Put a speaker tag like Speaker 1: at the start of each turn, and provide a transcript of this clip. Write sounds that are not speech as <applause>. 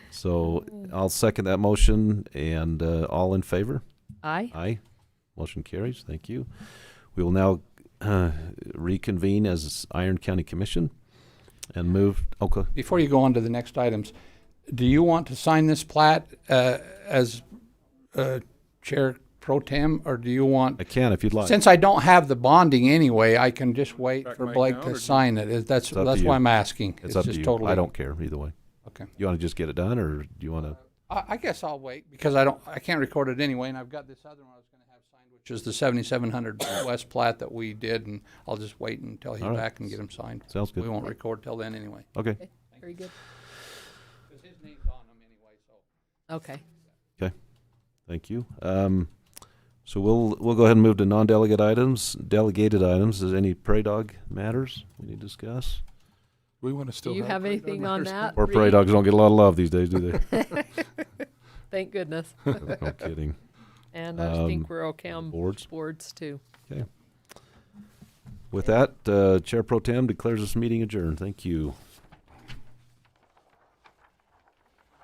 Speaker 1: So I'll second that motion and uh, all in favor?
Speaker 2: Aye.
Speaker 1: Aye. Motion carries. Thank you. We will now uh, reconvene as Iron County Commission and move, okay,
Speaker 3: Before you go on to the next items, do you want to sign this plat uh, as uh, Chair Pro Tem, or do you want?
Speaker 1: I can if you'd like.
Speaker 3: Since I don't have the bonding anyway, I can just wait
Speaker 4: Back
Speaker 3: for
Speaker 4: mine
Speaker 3: Blake
Speaker 4: now, or
Speaker 3: to
Speaker 4: do-
Speaker 3: sign it. Is- That's,
Speaker 1: It's up to
Speaker 3: that's
Speaker 1: you.
Speaker 3: why I'm asking.
Speaker 1: It's up to
Speaker 3: just
Speaker 1: you.
Speaker 3: totally-
Speaker 1: I don't care either way.
Speaker 3: Okay.
Speaker 1: You want to just get it done or do you want to?
Speaker 3: I, I guess I'll wait because I don't, I can't record it anyway, and I've got this other one I was gonna have signed, which is the seventy-seven hundred <coughs> West plat that we did, and I'll just wait until he's
Speaker 1: All right.
Speaker 3: back and get him signed.
Speaker 1: Sounds
Speaker 3: We
Speaker 1: good.
Speaker 3: won't record till then anyway.
Speaker 1: Okay.
Speaker 2: Very good.
Speaker 3: Cause his name's on them anyway, so.
Speaker 2: Okay.
Speaker 1: Thank you. Um, so we'll, we'll go ahead and move to non-delegate items, delegated items. Is any prey dog matters we need to discuss?
Speaker 4: We want to
Speaker 2: Do
Speaker 4: still.
Speaker 2: you have
Speaker 4: prairie dog
Speaker 2: anything on
Speaker 4: matters?
Speaker 2: that?
Speaker 1: Poor prey
Speaker 2: Reed?
Speaker 1: dogs don't get a lot of love these days, do they? <laughs>
Speaker 2: Thank goodness.
Speaker 1: No kidding.
Speaker 2: And uh, I
Speaker 1: Um,
Speaker 2: think we're okay on
Speaker 1: Boards?
Speaker 2: boards too.
Speaker 1: With that, uh, Chair Pro Tem declares this meeting adjourned. Thank you.